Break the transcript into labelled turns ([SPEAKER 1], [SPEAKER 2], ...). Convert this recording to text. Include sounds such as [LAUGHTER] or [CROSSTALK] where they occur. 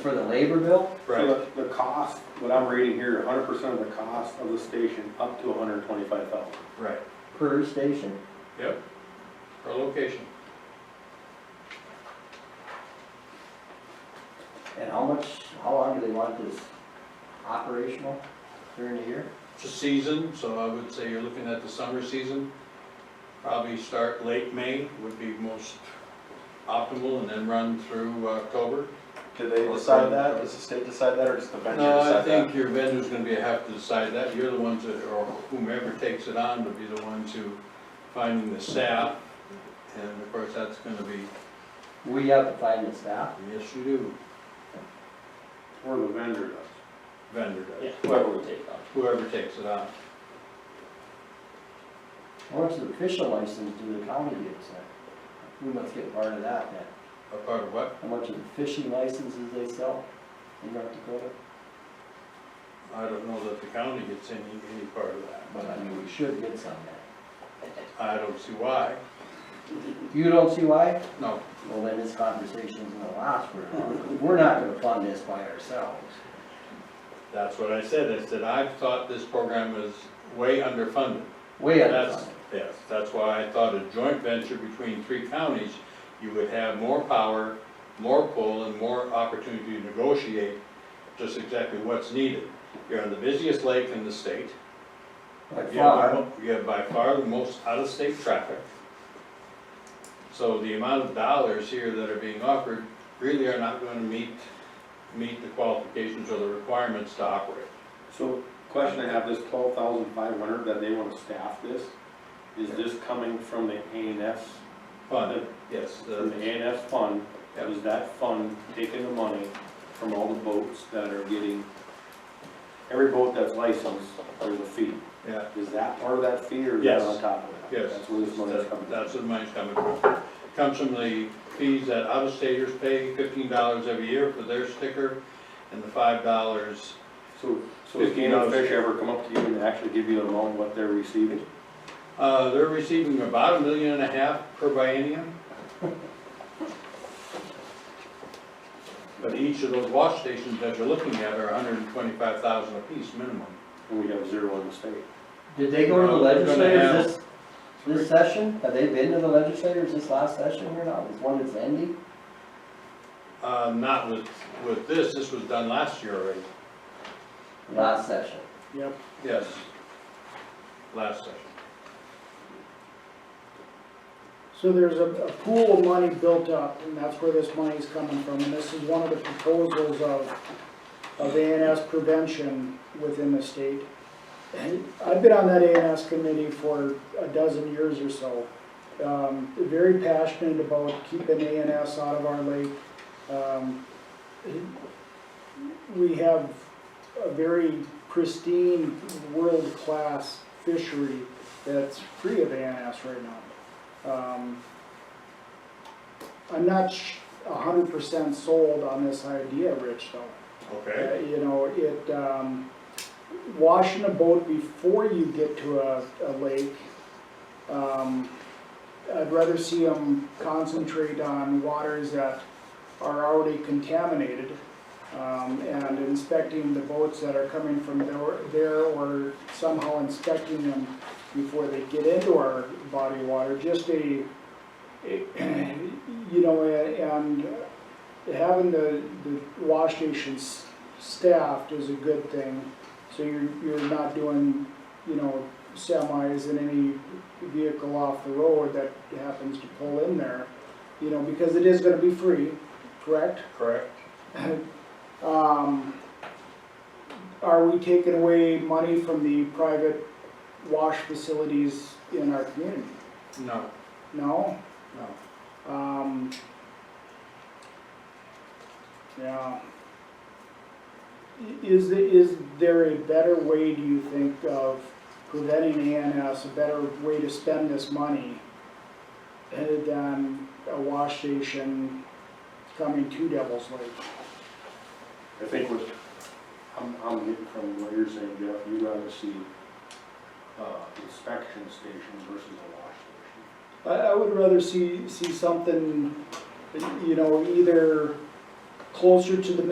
[SPEAKER 1] For the labor bill?
[SPEAKER 2] So the, the cost, what I'm reading here, hundred percent of the cost of the station up to hundred and twenty-five thousand.
[SPEAKER 3] Right,
[SPEAKER 1] Per station.
[SPEAKER 3] yep, per location.
[SPEAKER 1] And how much, how long do they want this operational during the year?
[SPEAKER 3] It's a season, so I would say you're looking at the summer season. Probably start late May would be most optimal and then run through October.
[SPEAKER 4] Did they decide that? Does the state decide that, or does the vendor
[SPEAKER 3] No, I
[SPEAKER 4] decide that?
[SPEAKER 3] think your vendor's gonna be, have to decide that. You're the ones that, or whomever takes it on would be the ones who finding the staff. And of course, that's gonna be,
[SPEAKER 1] We have to find the staff.
[SPEAKER 3] yes, you do,
[SPEAKER 2] Or the vendor does.
[SPEAKER 3] vendor does,
[SPEAKER 4] Whoever would take on.
[SPEAKER 3] whoever takes it on.
[SPEAKER 1] How much of the official license do the county get, so? We must get part of that then.
[SPEAKER 3] A part of what?
[SPEAKER 1] How much of the fishing licenses they sell in North Dakota?
[SPEAKER 3] I don't know that the county gets any, any part of that,
[SPEAKER 1] But
[SPEAKER 3] but
[SPEAKER 1] I mean, we should get some then.
[SPEAKER 3] I don't see why.
[SPEAKER 1] You don't see why?
[SPEAKER 3] No,
[SPEAKER 1] Well, then this conversation's gonna last for, we're not gonna fund this by ourselves.
[SPEAKER 3] that's what I said. I said, I've thought this program is way underfunded.
[SPEAKER 1] Way out
[SPEAKER 3] That's- Yes, that's why I thought a joint venture between three counties, you would have more power, more pull, and more opportunity to negotiate just exactly what's needed. You're on the busiest lake in the state.
[SPEAKER 1] Like
[SPEAKER 3] You have,
[SPEAKER 1] far,
[SPEAKER 3] the mo- you have by far the most out-of-state traffic. So the amount of dollars here that are being offered really are not gonna meet, meet the qualifications or the requirements to operate.
[SPEAKER 2] So question I have, this twelve thousand five hundred that they wanna staff this, is this coming from the A and S?
[SPEAKER 3] Fund, yes,
[SPEAKER 2] From the
[SPEAKER 3] the,
[SPEAKER 2] A and S fund,
[SPEAKER 3] Yep.
[SPEAKER 2] is that fund taking the money from all the boats that are getting, every boat that's licensed, there's a fee.
[SPEAKER 3] yeah,
[SPEAKER 2] Is that part of that fee or is that on
[SPEAKER 3] Yes.
[SPEAKER 2] top of it?
[SPEAKER 3] yes.
[SPEAKER 2] That's where this money's coming from.
[SPEAKER 3] That's where the money's coming from. Comes from the fees that out-of-staters pay, fifteen dollars every year for their sticker, and the five dollars,
[SPEAKER 2] So, so if Game and Fish ever come up to you and actually give you a loan, what they're receiving?
[SPEAKER 3] uh, they're receiving about a million and a half per biennium. But each of those wash stations that you're looking at are hundred and twenty-five thousand apiece minimum.
[SPEAKER 2] And we have zero in the state.
[SPEAKER 1] did they go to the
[SPEAKER 3] No, they're gonna have-
[SPEAKER 1] legislators this, this session? Have they been to the legislators this last session here now? This one that's ending?
[SPEAKER 3] Uh, not with, with this, this was done last year already,
[SPEAKER 1] Last session.
[SPEAKER 3] yes. Last session.
[SPEAKER 5] So there's a, a pool of money built up, and that's where this money's coming from, and this is one of the proposals of, of ANS prevention within the state. And I've been on that ANS committee for a dozen years or so. Um, very passionate about keeping ANS out of our lake. Um, We have a very pristine, world-class fishery that's free of ANS right now. Um, I'm not sh- a hundred percent sold on this idea, Rich, though.
[SPEAKER 3] Okay.
[SPEAKER 5] Uh, You know, it, um, washing a boat before you get to a, a lake, um, I'd rather see them concentrate on waters that are already contaminated, um, and inspecting the boats that are coming from there- there or somehow inspecting them before they get into our body of water, just a, [CLEARS THROAT] you know, and having the, the wash stations staffed is a good thing. So you're, you're not doing, you know, semis and any vehicle off the road that happens to pull in there, you know, because it is gonna be free, correct?
[SPEAKER 3] Correct.
[SPEAKER 5] Um, are we taking away money from the private wash facilities in our community?
[SPEAKER 3] No,
[SPEAKER 5] No?
[SPEAKER 3] no.
[SPEAKER 5] Um, yeah. I- Is, the- is there a better way, do you think, of preventing ANS, a better way to spend this money uh, than a wash station coming to Devil's Lake?
[SPEAKER 2] I think what, I'm, I'm getting from what you're saying, Jeff, you rather see, uh, inspection stations versus a wash station.
[SPEAKER 5] I, I would rather see, see something, you know, either closer to the